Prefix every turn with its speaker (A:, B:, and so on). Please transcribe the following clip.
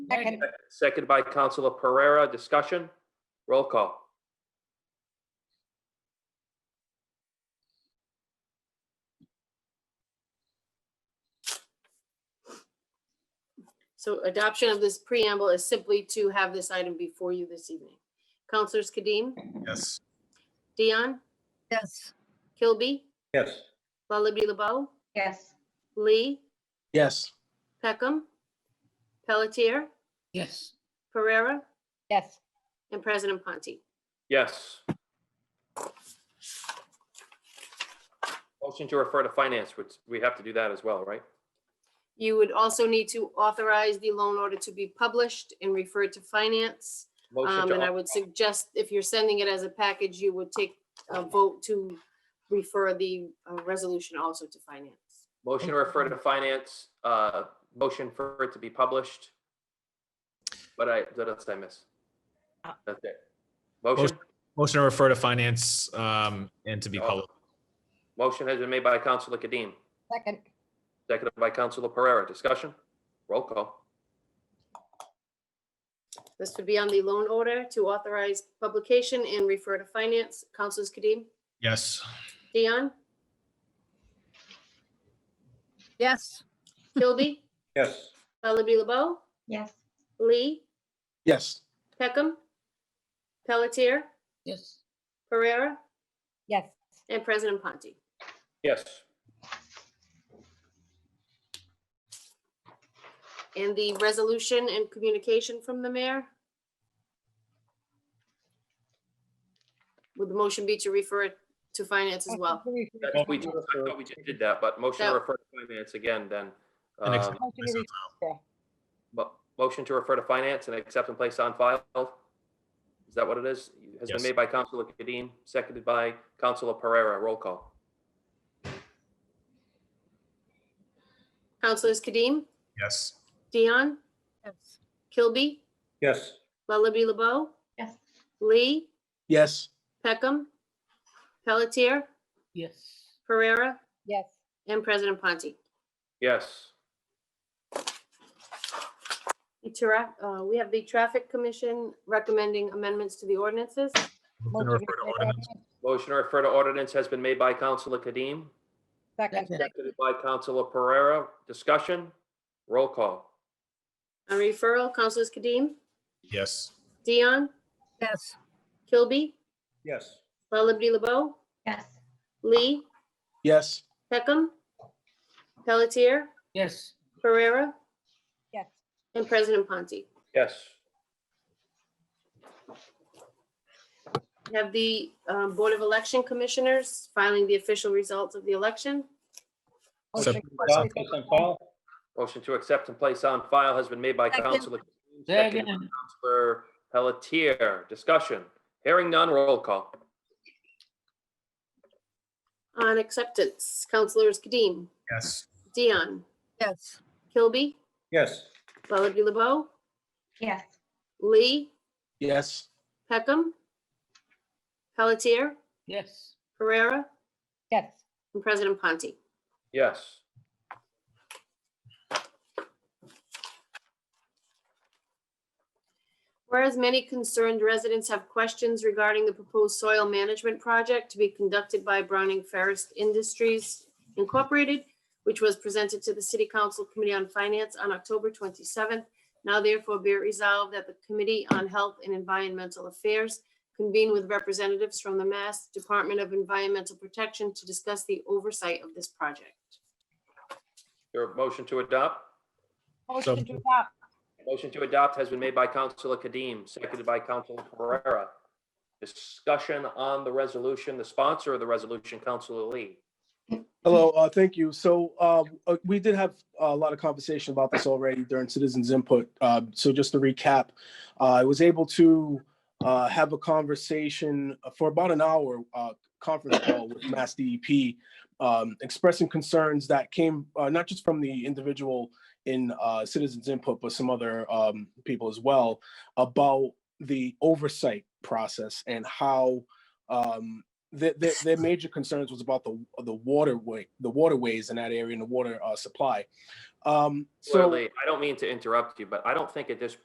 A: Second.
B: Seconded by Councilor Pereira. Discussion? Roll call.
C: So adoption of this preamble is simply to have this item before you this evening. Counselors Kadim,
D: Yes.
C: Dion,
A: Yes.
C: Kilby,
D: Yes.
C: Lullaby LeBeau,
A: Yes.
C: Lee,
D: Yes.
C: Peckham, Pelletier,
E: yes,
C: Pereira,
A: Yes.
C: and President Ponti.
B: Yes. Motion to refer to finance, which we have to do that as well, right?
C: You would also need to authorize the loan order to be published and referred to finance.
B: Motion
C: Um,
B: to
C: And I would suggest if you're sending it as a package, you would take a vote to refer the uh, resolution also to finance.
B: Motion to refer to finance, uh, motion for it to be published. But I, what else did I miss?
C: Uh,
B: That's it. Motion,
F: Motion to refer to finance um, and to
B: Oh.
F: be public.
B: motion has been made by Councilor Kadim,
A: Second.
B: seconded by Councilor Pereira. Discussion? Roll call.
C: This would be on the loan order to authorize publication and refer to finance. Councilors Kadim,
F: Yes,
C: Dion,
A: Yes.
C: Kilby,
D: Yes.
C: Lullaby LeBeau,
A: Yes.
C: Lee,
D: Yes.
C: Peckham, Pelletier,
E: yes.
C: Pereira,
A: Yes.
C: and President Ponti.
B: Yes.
C: And the resolution and communication from the mayor? Would the motion be to refer it to finance as well?
B: I think we just- I thought we just did that, but motion to
C: No.
B: refer to finance again then.
F: And ex-
B: Um,
A: Motion to re-
B: mo- Motion to refer to finance and accept and place on file. Is that what it is? Has been
F: Yes.
B: made by Councilor Kadim, seconded by Councilor Pereira. Roll call.
C: Councilors Kadim,
F: yes,
C: Dion,
A: Yes.
C: Kilby,
D: Yes.
C: Lullaby LeBeau,
A: Yes.
C: Lee,
D: Yes.
C: Peckham, Pelletier,
E: Yes.
C: Pereira,
A: Yes.
C: and President Ponti.
B: Yes.
C: The tra- uh, We have the Traffic Commission recommending amendments to the ordinances.
F: Motion
A: Motion to
F: to refer
A: refer
F: to
A: to
F: ordinance.
B: Motion to refer to ordinance has been made by Councilor Kadim,
A: Second.
B: seconded by Councilor Pereira. Discussion? Roll call.
C: On referral, Councilors Kadim,
F: yes,
C: Dion,
A: Yes.
C: Kilby,
D: Yes.
C: Lullaby LeBeau,
A: Yes.
C: Lee,
D: Yes.
C: Peckham, Pelletier,
E: Yes.
C: Pereira,
A: Yes.
C: and President Ponti.
B: Yes.
C: We Have the um, Board of Election Commissioners filing the official results of the election.
A: Motion
F: Second.
A: to refer to-
B: Motion to accept and place on file has been made by
A: Second.
B: Councilor. Kadim, seconded by
E: Second,
B: Councilor Pelletier. Discussion? Hearing none. Roll call.
C: On acceptance, Councilors Kadim,
F: yes,
C: Dion,
A: Yes.
C: Kilby,
D: Yes.
C: Lullaby LeBeau,
A: Yes.
C: Lee,
D: Yes.
C: Peckham, Pelletier,
E: yes,
C: Pereira,
A: Yes.
C: and President Ponti.
B: Yes.
C: Whereas many concerned residents have questions regarding the proposed soil management project to be conducted by Browning Ferris Industries Incorporated, which was presented to the City Council Committee on Finance on October 27th, now therefore be it resolved that the Committee on Health and Environmental Affairs convene with representatives from the Mass Department of Environmental Protection to discuss the oversight of this project.
B: Your motion to adopt?
A: Motion to adopt.
B: Motion to adopt has been made by Councilor Kadim, seconded by Councilor Pereira. Discussion on the resolution, the sponsor of the resolution, Councilor Lee.
G: Hello, uh, thank you. So, um, uh, we did have a lot of conversation about this already during citizens input. Uh, so just to recap, uh, I was able to, uh, have a conversation for about an hour, uh, conference call with Mass DEP, um, expressing concerns that came, uh, not just from the individual in, uh, citizens input, but some other, um, people as well about the oversight process and how, um, their, their, their major concerns was about the the waterway, the waterways in that area and the water uh, supply. Um, so.
B: Clearly, I don't mean to interrupt you, but I don't think at this